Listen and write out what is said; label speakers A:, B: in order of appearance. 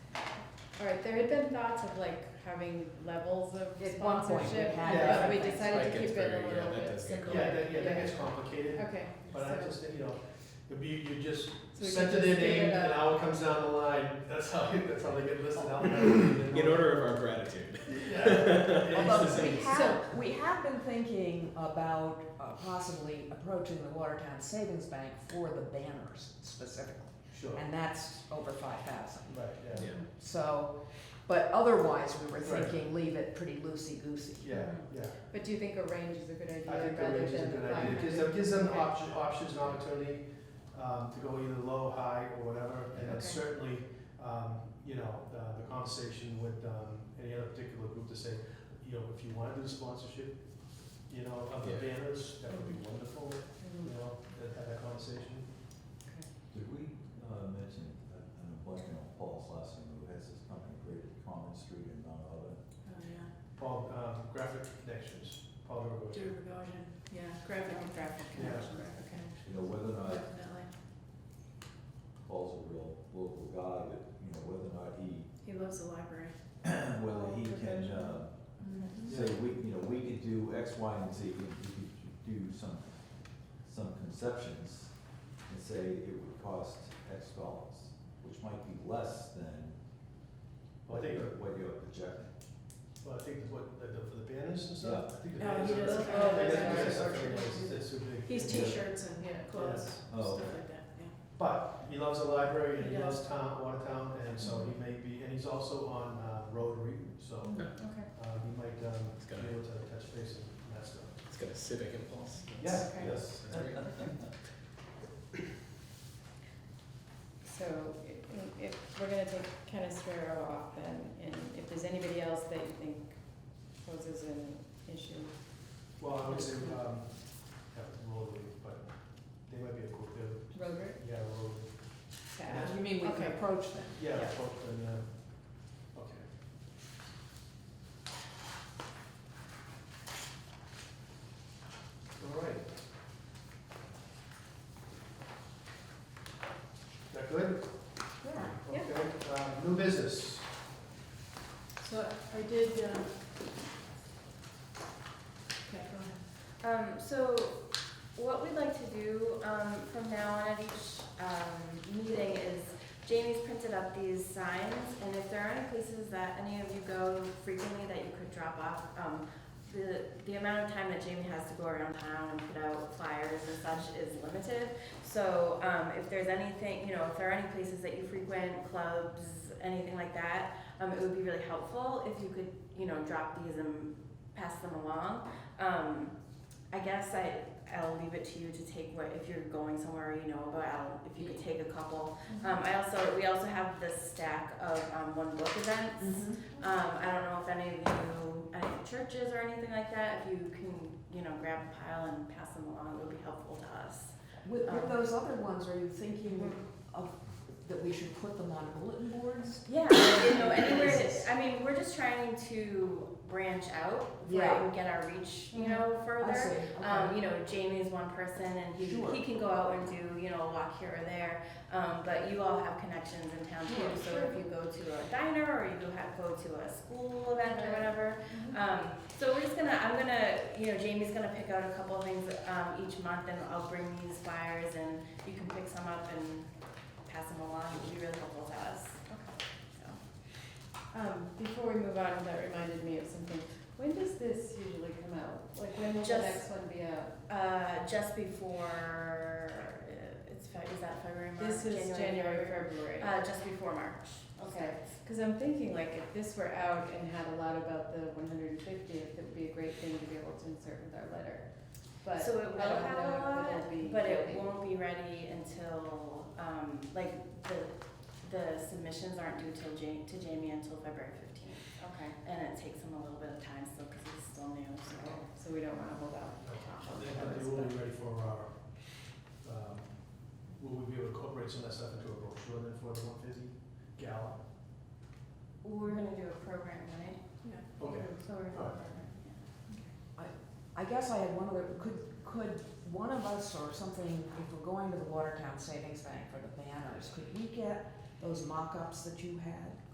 A: All right, there had been thoughts of like having levels of
B: At one point, we
A: sponsorship,
B: had
A: but we
B: different things.
A: decided
C: That
A: to
C: gets
A: keep it
C: very-
A: a
C: yeah,
A: little
C: that
A: bit
C: does get
A: simple.
C: Yeah.
D: Yeah, that, yeah, that gets complicated,
A: Okay.
D: but I
A: so-
D: just, you know, the be, you just
A: so we
D: send
A: could
D: it in,
A: just give
D: name,
A: it
D: and
A: a-
D: now it comes down the line, that's how, that's how they get listed out. In
C: In order of our gratitude.
D: Yeah. It
B: Although
D: is the
B: we
D: same.
B: have, we have been thinking about uh, possibly approaching the Watertown Savings Bank for the banners specifically.
D: Sure,
B: And that's over five thousand,
D: right, yeah,
C: Yeah.
B: so, but otherwise, we were
D: Right.
B: thinking leave it pretty loosey-goosey.
D: yeah, yeah.
A: But do you think a range is a good idea
D: I think the
A: rather
D: range is a
A: than
D: good
A: five
D: idea, it gives
A: hundred?
D: them, gives them
A: Okay.
D: option, options and opportunity, um, to go either low, high, or whatever, and
A: Okay.
D: then certainly, um, you know, uh, the conversation with, um, any other particular group to say, you know, if you wanna do sponsorship, you know, of the
C: Yeah.
D: banners, that would be wonderful,
A: Mhm.
D: you know, to have that conversation.
E: Did we uh, mention that an employee, you know, Paul Slauson, who has this company created Common Street and none other?
A: Oh, yeah,
D: Paul, um, graphic connections, Paul Durgood.
A: Durgovian, yeah, graphic and graphic
D: Yeah.
A: connections, okay,
E: You know, whether or not
A: definitely.
E: Paul's a real local guy, but, you know, whether or not he,
A: He loves the library.
E: whether he can uh, say, we, you know, we could do X, Y, and Z, and we could do some, some conceptions and say it would cost X dollars, which might be less than
D: Well, I
E: what
D: think-
E: you're, what you're projecting.
D: Well, I think that's what, the, the- for the banners and stuff, I think the
A: Yeah.
D: banners.
A: Oh, he
D: are-
A: does-
D: I think
A: oh,
D: that's-
A: that's
D: that's
A: right.
D: something that's- that's too big.
E: Yeah.
A: t-shirts and
D: clothes,
E: Oh, okay.
A: like that, yeah.
D: But he loves the library and he
A: Yeah.
D: loves town, Watertown, and so he may be, and he's also on uh, Rotary, so
A: Okay.
D: uh, he might um,
C: He's
D: be
C: got a-
D: able to touch base and that stuff.
C: It's got a civic impulse.
D: Yeah,
A: Okay.
D: yes.
C: That's great.
A: So i- if we're gonna take Ken Estrero off then, and if there's anybody else that you think poses an issue,
D: Well, I would say, um, yeah, Rotary, but they might be a cool, they
A: Robert,
D: yeah, Rotary.
A: to add.
B: You mean we can
A: Okay.
B: approach them?
D: Yeah,
A: Yeah.
D: folk and, uh, okay. All right. Is that good?
B: Yeah.
A: Yeah.
D: Okay, uh, new business.
A: So I did, um. Okay, go ahead. Um, so what we'd like to do, um, from now on at each, um, meeting is Jamie's printed up these signs, and if there are any places that any of you go frequently that you could drop off, um, the, the amount of time that Jamie has to go around town and put out flyers and such is limited. So, um, if there's anything, you know, if there are any places that you frequent, clubs, anything like that, um, it would be really helpful if you could, you know, drop these and pass them along. Um, I guess I, I'll leave it to you to take what, if you're going somewhere you know about, I'll- if you could take a couple. Um, I also, we also have this stack of, um, one book
B: Mm-hmm.
A: events. Um, I don't know if any of you, any churches or anything like that, if you can, you know, grab a pile and pass them along, it would be helpful to us.
B: With,
A: Um,
B: with those other ones, are you thinking of, that we should put them on bulletin boards?
A: Yeah, you know, anywhere that, I mean, we're just trying to branch out, right,
B: Yeah.
A: and get our reach, you know,
B: I see,
A: further. Um,
B: okay.
A: you know, Jamie's one person and he,
B: Sure.
A: he can go out and do, you know, a walk here or there. Um, but you all have connections in town too,
B: Sure,
A: so
B: sure.
A: if you go to a diner or you have, go to a school event or
B: Right.
A: whatever.
B: Mm-hmm.
A: Um, so we're just gonna, I'm gonna, you know, Jamie's gonna pick out a couple of things, um, each month and I'll bring these flyers and you can pick some up and pass them along. It'd be really helpful to us.
F: Um, before we move on, that reminded me of something. When does this usually come out? Like, when will the next
A: Just-
F: one be out?
A: Uh, just before, uh, it's, Fe- is that February, March?
F: This is January, February.
A: Uh, just before March.
F: Okay. Cause I'm thinking like if this were out and had a lot about the one hundred and fiftieth, it would be a great thing to be able to insert with our letter. But
A: So it will
F: I don't
A: have
F: know
A: a
F: if
A: lot,
F: it'll be
A: but it
F: ready.
A: won't be ready until, um, like, the, the submissions aren't due till Ja- to Jamie until February fifteenth.
F: Okay,
A: And it takes him a little bit of time still, cause he's still new, so.
F: so we don't wanna hold out.
D: They, they will be ready for our, um, will we be able to incorporate some of that stuff into a brochure then for the one fifty gala?
A: We're gonna do a program, right?
D: Okay,
A: So we're.
D: Alright.
B: I guess I had one other, could, could one of us or something, if we're going to the Watertown Savings Bank for the banners, could we get those mock-ups that you had?